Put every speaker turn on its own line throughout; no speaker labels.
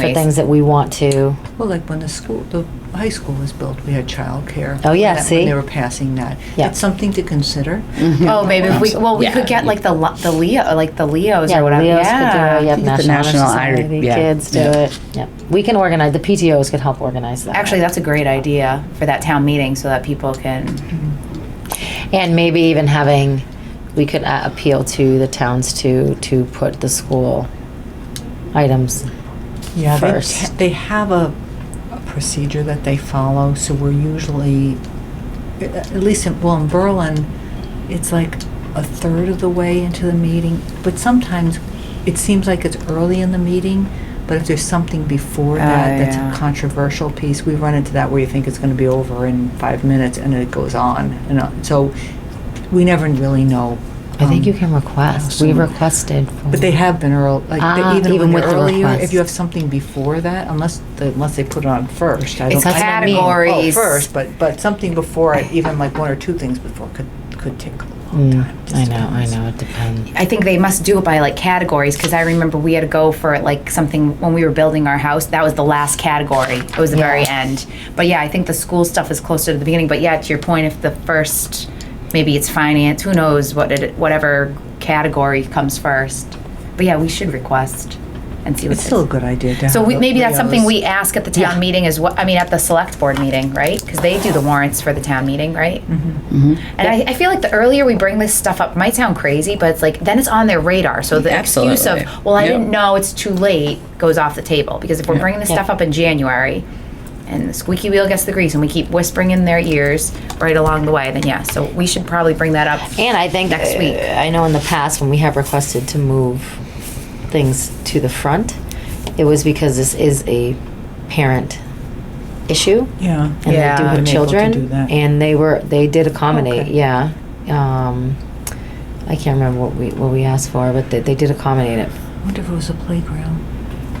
for things that we want to.
Well, like when the school, the high school was built, we had childcare.
Oh, yeah,
That-
see?
When they were passing that.
Yeah. Mm-hmm.
It's something to consider.
Oh, maybe if we, well, we
Yeah.
could get like the, lo- the Leo, like the Leos or whatever.
Leos could do it. Yep,
The
National, Honor
National Honor-
Society
yeah.
kids do
Yeah.
it. Yep, we can organize. The PTOS could help organize that.
Actually, that's a great idea for that town meeting so that people can,
and maybe even having, we could uh, appeal to the towns to to put the school items.
Yeah, they,
First.
ha- they have a, a procedure that they follow, so we're usually, a- at least in, well, in Berlin, it's like a third of the way into the meeting, but sometimes it seems like it's early in the meeting, but if there's something before
Oh,
that that's
yeah.
a controversial piece, we run into that where you think it's gonna be over in five minutes and it goes on, and uh, so we never really know.
I think
um,
you can request. We
awesome.
requested. for-
but they have been early, like
Ah,
they, even,
even
when
with
they're
the
earlier.
request.
If you have something before that, unless the, unless they put it on first, I
It's
don't. I don't mean-
categories.
oh, first, but but something before it, even like one or two things before could could take a long
Mm,
time. It just
I know. I
depends.
know. It depends.
I think they must do it by like categories because I remember we had to go for like something when we were building our house. That was the last category. It was the very
Yeah.
end. But yeah, I think the school stuff is closer to the beginning. But yeah, to your point, if the first, maybe it's finance, who knows what it, whatever category comes first. But yeah, we should request and see what
It's still a good idea to
So
have
we,
the
maybe that's something
Leos.
we ask at the town
Yeah.
meeting is what I mean at the select board meeting, right? Because they do the warrants for the town meeting, right?
Mm-hmm.
Mm-hmm. And I, I feel like the earlier we bring this stuff up, it might sound crazy, but it's like then it's on their radar. So the excuse of
Absolutely.
well, I
Yep.
didn't know, it's too late, goes off the table. Because if we're bringing this
Yeah.
stuff up in January, and the squeaky wheel gets the grease, and we keep whispering in their ears right along the way, then yeah. So we should probably bring that up.
And I think
Next week.
uh, I know in the past when we have requested to move things to the front, it was because this is a parent issue.
yeah.
And they do
Yeah.
have
Been able to
children.
do that.
And they were they did accommodate,
Okay.
yeah. Um, I can't remember what we what we asked for, but they, they did accommodate it.
I wonder if it was a playground.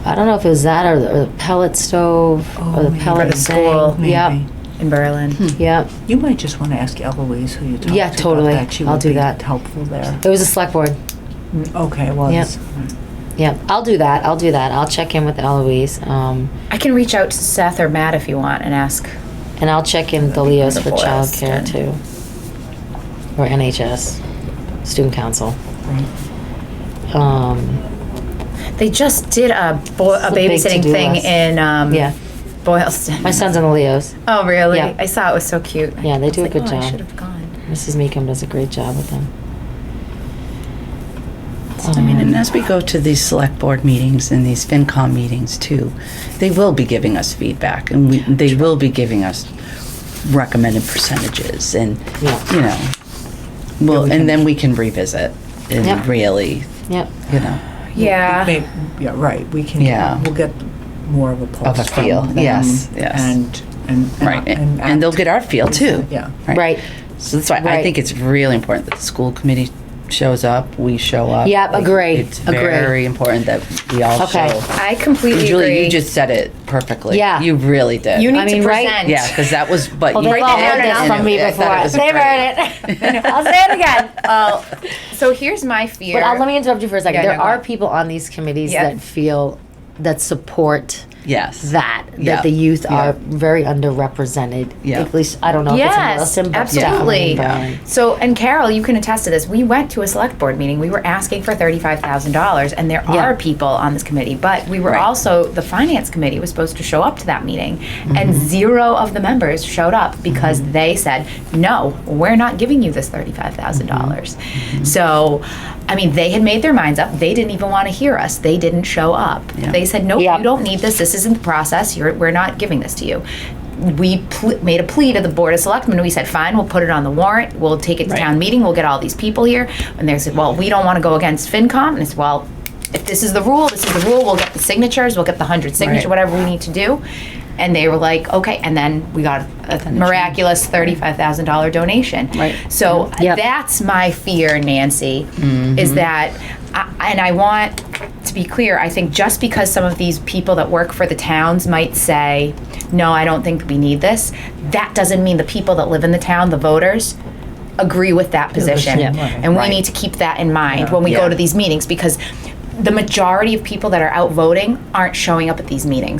I don't know if it was that or the, or the pellet stove
Oh,
or the
maybe.
pellet
For the
thing.
school,
Yep.
Maybe.
In Berlin,
Yep.
You might just want to ask Eloise who you talked
Yeah,
to
totally.
about that. She
I'll
would
do
be
that.
Helpful there.
It was a select board.
Mm, Okay, well,
Yep.
it's-
Yep. I'll do that. I'll do that. I'll check in with Eloise. Um,
I can reach out to Seth or Matt if you want and ask.
And I'll check in with the Leos for
The boys,
childcare
yeah.
too. Or NHS, student council.
right.
Um,
They just did a, bo- a
It's a big
babysitting
to-do
thing
list.
in um,
yeah,
Boylston.
my son's in the Leos.
Oh, really?
Yeah.
I saw it was so cute.
Yeah, they
I was
do a
like,
good
"Oh,
job."
I should have gone.
Mrs. Meekum does a great job with them.
I mean, and
Um,
as we go to these select board meetings and these FinCom meetings too, they will be giving us feedback and we, they will be giving us recommended percentages and,
Yeah.
you know, well, and then we can revisit
Yep.
and really,
Yep,
you know,
Yeah.
May- Yeah, right, we can,
Yeah.
we'll get more of a pulse.
Of a
from
feel,
them
yes, yes.
And, and. and-
right, and and they'll
act.
get our feel too.
Yeah.
right.
So that's why I
Right.
think it's really important that the school committee shows up, we show up.
Yep,
Like,
agree,
It's
agree.
very important that we all
Okay.
show.
I completely agree.
Julie, you just said it perfectly.
Yeah.
You really did.
You need
I mean,
to
right?
present.
Yeah, because that was, but
Well,
you
they've all heard this from me before. They've heard it. I'll say it again.
Well, so here's my fear.
But uh, let me interrupt you for a second.
Yeah,
There
no, go
are
on.
people on these committees
Yeah.
that feel, that support
Yes.
that, that
Yeah.
the youth are
Yeah.
very underrepresented.
Yeah.
At least, I don't know if it's in
Yes,
Wilson, but
absolutely.
definitely in Berlin.
So, and Carol, you can attest to this. We went to a select board meeting. We were asking for thirty-five thousand dollars, and there
Yeah.
are people on this committee. But we were
Right.
also the finance committee was supposed to show up to that meeting, and
Mm-hmm.
zero of the members showed up because they said, "No, we're not giving you this thirty-five dollars."
Mm-hmm.
So, I mean, they had made their minds up. They didn't even want to hear us. They didn't show up.
Yeah.
They said, "No,
Yep.
you don't need this. This isn't the process. You're, we're not giving this to you." We pl- made a plea to the board of selectmen. We said, "Fine, we'll put it on the warrant. We'll take it to
Right.
town meeting. We'll get all these people here." And they said, "Well, we don't want to go against FinCom." And it's well. If this is the rule, this is the rule. We'll get the signatures. We'll get the hundred signatures,
Right.
whatever we need to do. And they were like, okay. And then we got a miraculous thirty-five thousand dollar donation.
Right.
So
Yep.
that's my fear, Nancy, is that, I, and I want to be clear, I think just because some of these people that work for the towns might say, no, I don't think we need this, that doesn't mean the people that live in the town, the voters, agree with that position.
Yeah.
And we need to keep that in mind when we go
Yeah.
to these meetings because the majority of people that are out voting aren't showing up at these meetings.